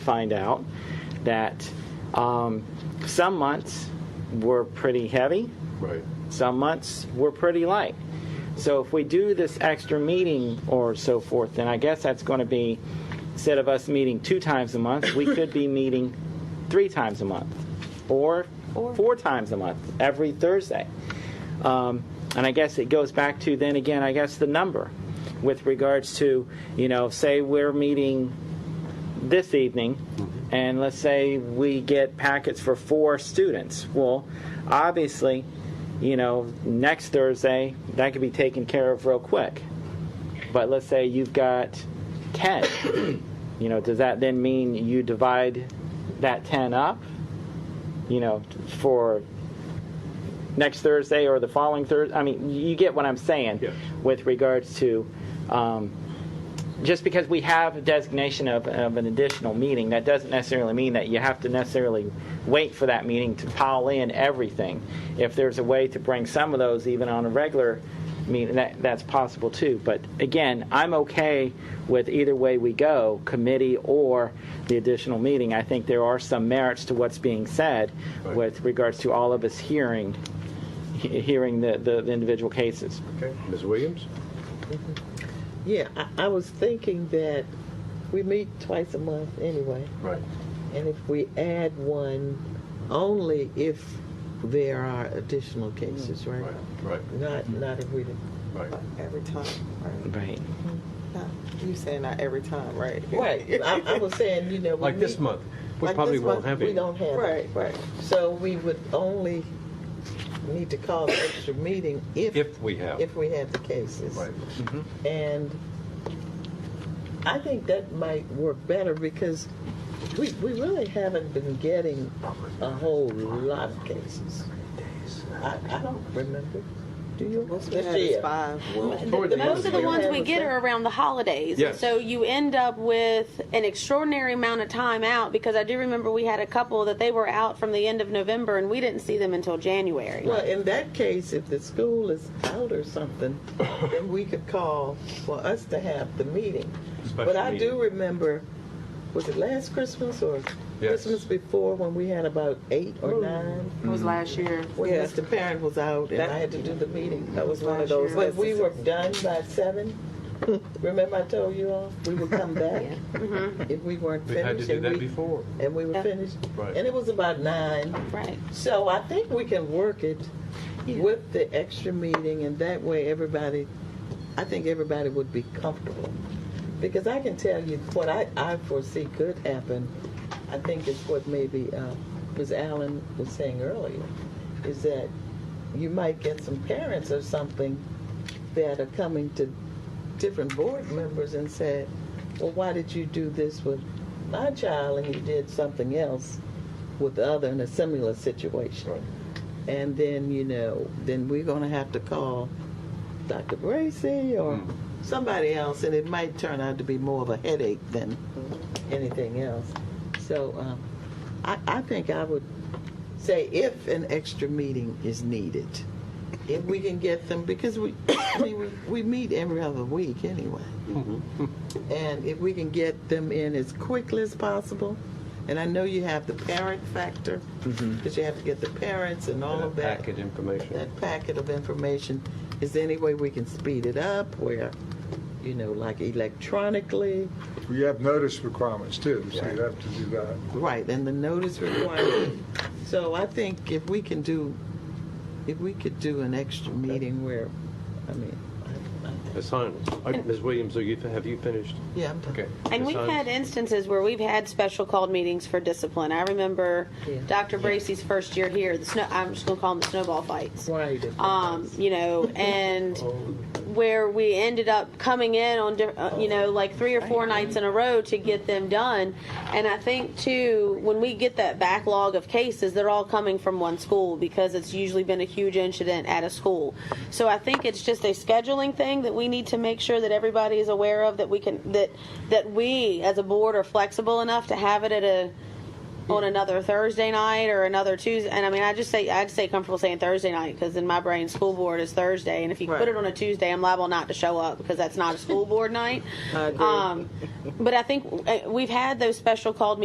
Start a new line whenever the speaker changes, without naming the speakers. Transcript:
find out that um, some months were pretty heavy,
Right.
some months were pretty light. So if we do this extra meeting or so forth, then I guess that's going to be instead of us meeting two times a month, we could be meeting three times a month or four times a month every Thursday. Um, and I guess it goes back to then again, I guess the number with regards to, you know, say we're meeting this evening, and let's say we get packets for four students. Well, obviously, you know, next Thursday, that could be taken care of real quick. But let's say you've got 10. you know, does that then mean you divide that 10 up, you know, for next Thursday or the following Thursday? I mean, you get what I'm saying
Yeah.
with regards to. Um, just because we have a designation of, of an additional meeting, that doesn't necessarily mean that you have to necessarily wait for that meeting to pile in everything. If there's a way to bring some of those even on a regular meeting, that, that's possible too. But again, I'm okay with either way we go, committee or the additional meeting. I think there are some merits to what's being said
Right.
with regards to all of us hearing, he- hearing the, the the individual cases.
Okay. Ms. Williams?
Yeah, I, I was thinking that we meet twice a month anyway,
Right.
and if we add one, only if there are additional cases,
Mm.
right?
Right. Right.
Not, not if we, didn't-
Right.
Every time, right?
Right.
Not, you saying not every time, right?
right, I, I was saying, you know. we
Like this
meet-
month, we
like
probably
this
won't
month,
have
We
it.
don't have
Right,
it.
right.
So we would only need to call an extra meeting if,
If we have.
if we had the cases.
Right.
And I think that might work better because we, we really haven't been getting a whole lot of cases. I, I don't remember. Do you?
Most we had is five.
Toward
the
the
most
end
Most of the
Yeah.
ones we
Yeah.
get are around the holidays.
Yes.
So you end up with an extraordinary amount of time out because I do remember we had a couple that they were out from the end of November and we didn't see them until January.
Well, in that case, if the school is out or something, then we could call for us to have the meeting.
Special
But I
meeting.
do remember, was it last Christmas or
Yes.
Christmas before when we had about eight or nine?
It was last year.
When
Yes.
Mr. Parent was out and I had to do the meeting. That was one of
Last
those.
year.
But we were done by seven. Remember I told you all, we would come back
Mm-hmm.
if we weren't
We've
finished.
had to do
and
that
we-
before.
And we were
Yeah.
finished.
Right.
And it was about nine.
Right.
So I think we can work it with the extra meeting, and that way everybody, I think everybody would be comfortable. Because I can tell you what I, I foresee could happen, I think is what maybe uh, Ms. Allen was saying earlier, is that you might get some parents or something that are coming to different board members and said, well, why did you do this with my child and you did something else with the other in a similar situation?
Right.
And then, you know, then we're going to have to call Dr. Bracy or
Mm.
somebody else, and it might turn out to be more of a headache than anything else. So um, I, I think I would say if an extra meeting is needed, if we can get them, because we, I mean, we, we meet every other week anyway. And if we can get them in as quickly as possible, and I know you have the parent factor, because you have to get the parents and all
And a
of that
Packet information.
that packet of information, is there any way we can speed it up where, you know, like electronically?
You have notice requirements too, so you have to do that.
Right, and the notice requirement. So I think if we can do, if we could do an extra meeting where, I mean, I- I-
Ms. Hines, uh, Ms. Williams, are you, have you finished?
yeah, I'm
Okay.
And
Ms.
we've
Hines?
had instances where we've had special called meetings for discipline. I remember
Yeah.
Dr. Bracey's first year here, the snow, I'm just going to call them the snowball fights.
right. if-
um, you know, and
Oh.
Oh,
where we ended up coming in on, di- uh, you know, like three or four nights in a row to get them done. And I think too, when we get that backlog of cases, they're all coming from one school because it's usually been a huge incident at a school. So I think it's just a scheduling thing that we need to make sure that everybody is aware of that we can that that we as a board are flexible enough to have it at a on another Thursday night or another Tuesday. And I mean, I just say I'd say comfortable saying Thursday night because in my brain, school board is Thursday, and if you
Right.
put it on a Tuesday, I'm liable not to show up because that's not a school board night.
I agree.
Um, but I think uh, we've had those special called.